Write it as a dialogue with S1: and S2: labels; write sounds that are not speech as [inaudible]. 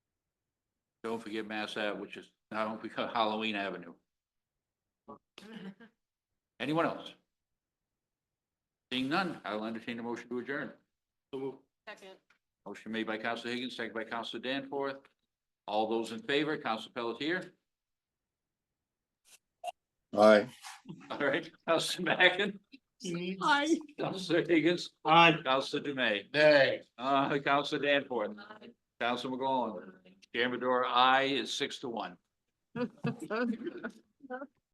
S1: Don't forget Mass Ave, which is now become Halloween Avenue. Anyone else? Seeing none, I'll entertain a motion to adjourn.
S2: Second.
S1: Motion made by Council Higgins, second by Council Danforth. All those in favor, Council Pelletier,
S3: Aye.
S1: [laughs] all right, Council Mackin,
S2: Aye.
S1: Council Higgins,
S3: Aye.
S1: Council Dume,
S3: Nay.
S1: uh, Council Danforth, Council McGowan, Chairman Dora, aye is six to one.